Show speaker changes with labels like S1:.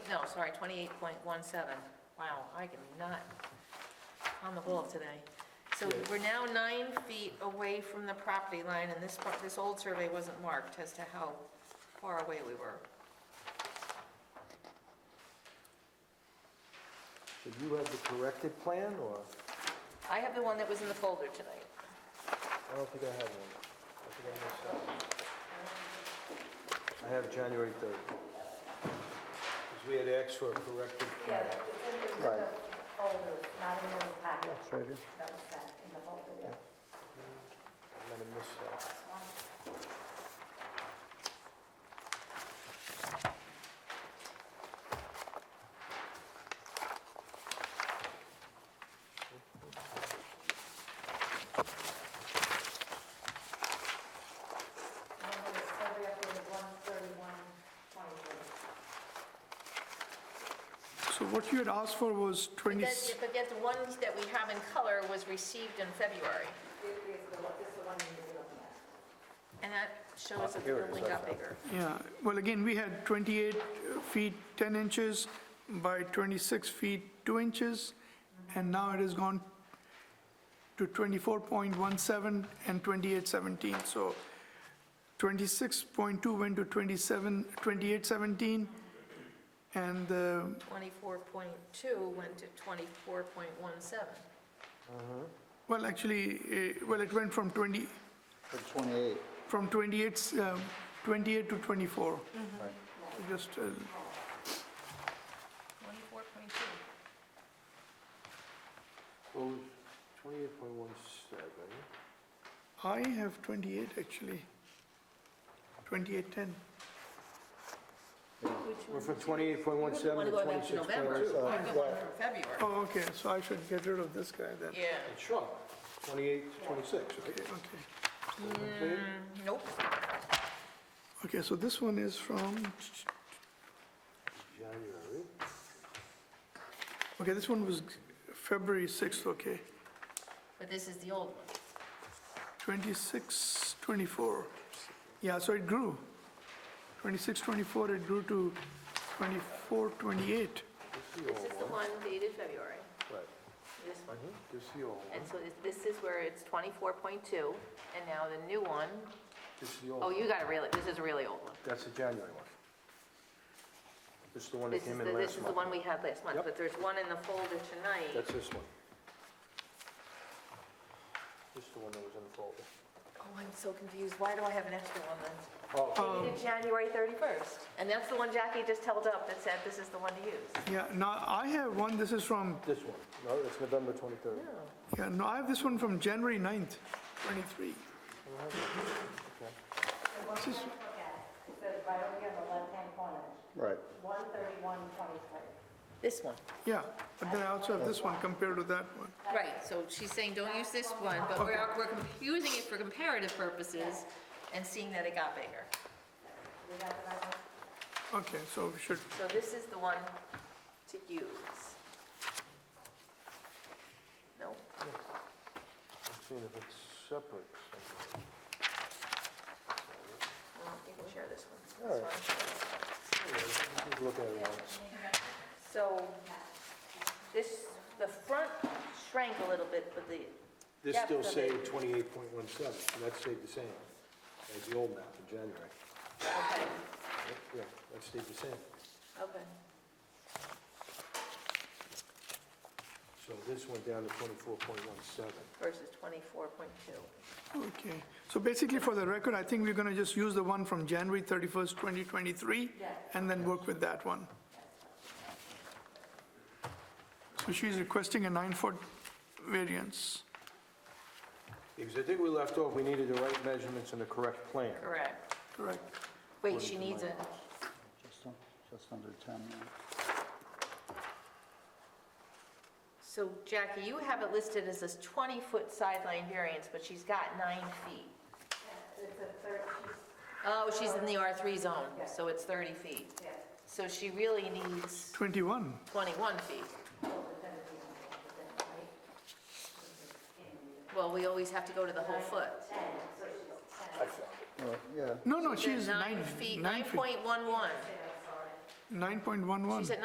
S1: sorry, 28.17. Wow, I am not on the ball today. So
S2: Yeah.
S1: we're now nine feet away from the property line, and this, part- this old survey wasn't marked as to how far away we were.
S2: So you have the corrected plan, or?
S1: I have the one that was in the folder tonight.
S2: I don't think I have one. I think I missed that. I have January 3rd. Because we had asked for a corrected plan. Right.
S3: folders, not in the packet.
S2: That's right here.
S3: That was that, in the folder, yeah.
S2: I'm going to miss that.
S3: Remember, it's every up in one thirty-one, twenty-three.
S4: So what you had asked for was 20,
S1: That- But yet the ones that we have in color was received in February,
S3: This is the one, this is the one you're looking at.
S1: and that shows that the
S2: Here it is,
S1: building
S2: I
S1: got
S2: found it.
S1: bigger.
S4: yeah, well, again, we had 28 feet 10 inches by 26 feet 2 inches, and now it has gone to 24.17 and 28.17, so 26.2 went to 27, 28.17, and uh, the
S1: 24.2 went to 24.17.
S4: Well, actually, eh, well, it went from 20,
S5: For 28,
S4: from 28, um, 28 to 24. Just, uh,
S1: 24.2.
S2: Well, 28.17.
S4: I have 28, actually. 2810.
S2: We're from
S1: Wouldn't
S2: 28.17
S1: want
S2: to uh,
S1: to go back to November,
S2: 26.2.
S1: I got one from February.
S4: Oh, okay, so I should get rid of this guy then.
S1: Yeah,
S2: It shrunk, 28 to 26, okay?
S4: Okay,
S1: nope.
S4: okay, so this one is from,
S2: January.
S4: okay, this one was February 6th, okay.
S1: But this is the old one.
S4: 26, 24. Yeah, so it grew. 26, 24, it grew to 24,
S2: This
S4: 28.
S2: is
S1: This is
S2: the
S1: the
S2: old one.
S1: one dated February,
S2: Right.
S1: this one.
S2: This is the old one.
S1: And so this- this is where it's 24.2, and now the new one,
S2: This is the old
S1: oh,
S2: one.
S1: you got a really, this is a really old one.
S2: That's the January one. This is the one that
S1: This is,
S2: came
S1: the-
S2: in
S1: this
S2: last
S1: is the one we
S2: month.
S1: had last month,
S2: Yep.
S1: but there's one in the folder tonight.
S2: That's this one. This is the one that was in the folder.
S1: Oh, I'm so confused, why do I have an extra one then?
S2: Oh,
S1: Dated January 31st, and that's the one Jackie just held up that said this is the one to use.
S4: Yeah, now I have one, this is from
S2: this one. No, it's November 23rd.
S4: Yeah, no, I have this one from January 9th, 23.
S3: The one you look at, it says right over here on the left-hand corner,
S5: right.
S3: one thirty-one, twenty-three.
S1: This one.
S4: Yeah, but then I also have this one compared to that one.
S1: Right, so she's saying, don't use this one, but we're, we're com- using it for comparative purposes and seeing that it got bigger.
S3: We got the right one?
S4: Okay, so we should,
S1: So this is the one to use. No,
S2: I'm seeing if it's separate. somewhere.
S1: no, you can share this one.
S2: All right.
S1: That's fine.
S2: Anyway, Just look at it once.
S1: So this, the front shrank a little bit, but the,
S2: This
S1: Yep,
S2: still
S1: the
S2: saved 28.17, so that stayed the same as the old map in January.
S1: okay,
S2: Yep, Yeah, that stayed the same.
S1: okay.
S2: So this went down to 24.17.
S1: Versus 24.2.
S4: okay. So basically, for the record, I think we're going to just use the one from January 31st, 2023, and then work with that one. So she's requesting a nine-foot variance.
S2: Because I think we left off, we needed the right measurements and the correct plan.
S1: Correct.
S4: Correct.
S1: Wait, she needs a,
S5: Just, un- just under 10. yeah.
S1: so Jackie, you have it listed as this 20-foot sideline variance, but she's got nine feet.
S3: It's a third, she's,
S1: Oh, she's in the R3 zone, so it's 30 feet.
S3: yeah,
S1: So she really needs
S4: 21.
S1: 21 feet. Well, we always have to go to the whole foot.
S5: Well, uh, Yeah,
S4: No, no, she's
S1: Oh, Nine
S4: nine.
S1: feet,
S4: nine
S1: 9.11.
S4: 9.11.
S1: She's at